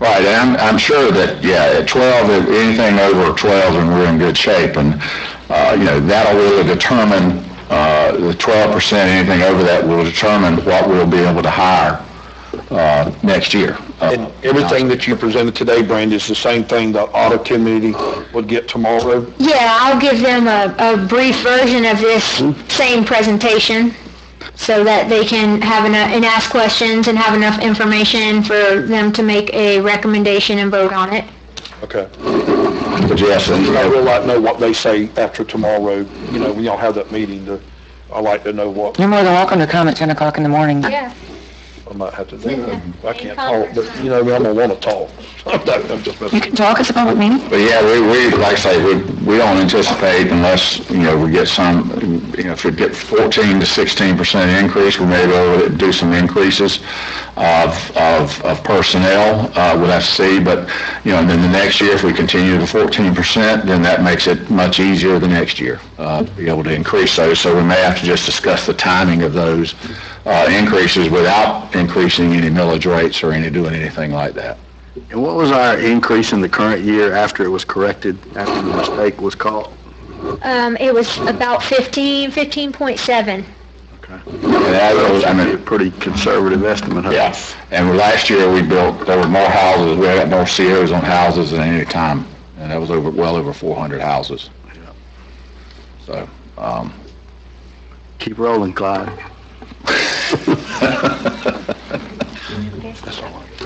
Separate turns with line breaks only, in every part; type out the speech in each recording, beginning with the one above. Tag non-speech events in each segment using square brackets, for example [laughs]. Right, and I'm, I'm sure that, yeah, at 12, if anything over 12, and we're in good shape, and, uh, you know, that'll really determine, uh, the 12%, anything over that will determine what we'll be able to hire, uh, next year. Uh,
And everything that you presented today, Brandy, is the same thing the audit committee would get tomorrow.
Yeah, I'll give them a, a brief version of this same presentation so that they can have enough, and ask questions and have enough information for them to make a recommendation and vote on it.
Okay.
But yes, and,
I would like to know what they say after tomorrow, you know, when y'all have that meeting, to- I'd like to know what
You're more than welcome to come at 10 o'clock in the morning.
Yeah.
I might have to do. I can't talk, but, you know, I'm gonna wanna talk. [laughs] I'm just
You
messing.
can talk, it's a public meeting.
But yeah, we, we, like I say, we, we don't anticipate unless, you know, we get some, you know, if we get 14 to 16 percent increase, we may be able to do some increases of, of, of personnel, uh, we'll have to see, but, you know, and then the next year, if we continue the 14 percent, then that makes it much easier the next year, uh, to be able to increase those, so we may have to just discuss the timing of those, uh, increases without increasing any millage rates or any, doing anything like that.
And what was our increase in the current year after it was corrected, after the mistake was caught?
Um, it was about 15, 15.7.
And that was, I mean,
A pretty conservative estimate, huh?
Yeah, and last year we built, there were more houses, we had more COs on houses than any time, and that was over, well over 400 houses. So, um,
Keep rolling, Clyde.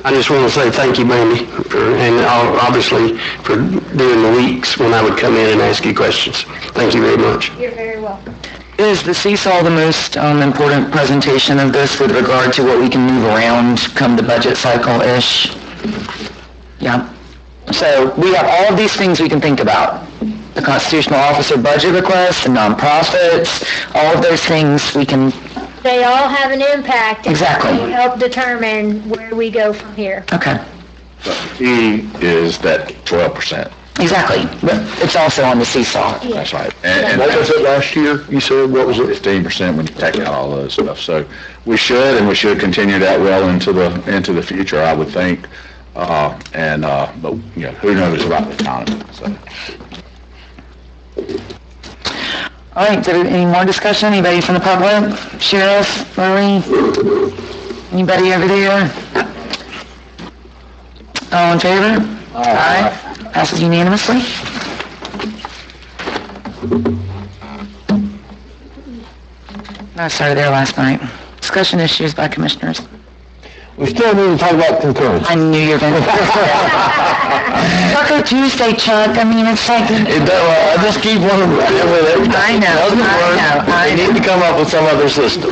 I just want to say thank you, Mandy, for, and ob- obviously for during the weeks when I would come in and ask you questions. Thank you very much.
You're very welcome.
Is the seesaw the most um, important presentation of this with regard to what we can move around come the budget cycle-ish? Yeah. So we have all of these things we can think about. The constitutional officer budget requests, the nonprofits, all of those things we can,
They all have an impact. They
exactly.
help determine where we go from here.
Okay,
E is that 12%,
exactly. But it's also on the seesaw.
that's right. And-
What was
and
it last year? You said, what was it?
15% when you take out all those stuff, so we should, and we should continue that well into the, into the future, I would think. Uh, and, uh, but, you know, who knows about the economy, so.
All right, did- any more discussion? Anybody from the public? Sheriff, Marie? Anybody over there? All in favor? Aye. Passes unanimously. I started there last night. Discussion issues by commissioners.
We still need to talk about concurrence.
I knew you were
[laughs]
going to... Taco Tuesday, Chuck, I mean, it's like...
uh, I just keep wanting to with every
I know, I know, I know.
need to come up with some other system.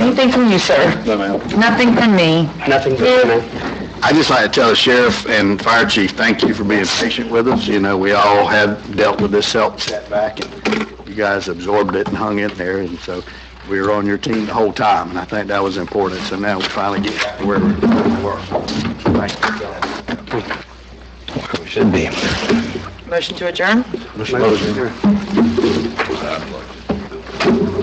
Anything from you, sir?
No, ma'am.
Nothing from me.
Nothing but,
I'd just like to tell the sheriff and fire chief, thank you for being patient with us. You know, we all have dealt with this self setback, and you guys absorbed it and hung in there, and so we were on your team the whole time, and I think that was important. So now we finally get back to where we were. Thank you.
we should be.
Motion to adjourn?
Motion.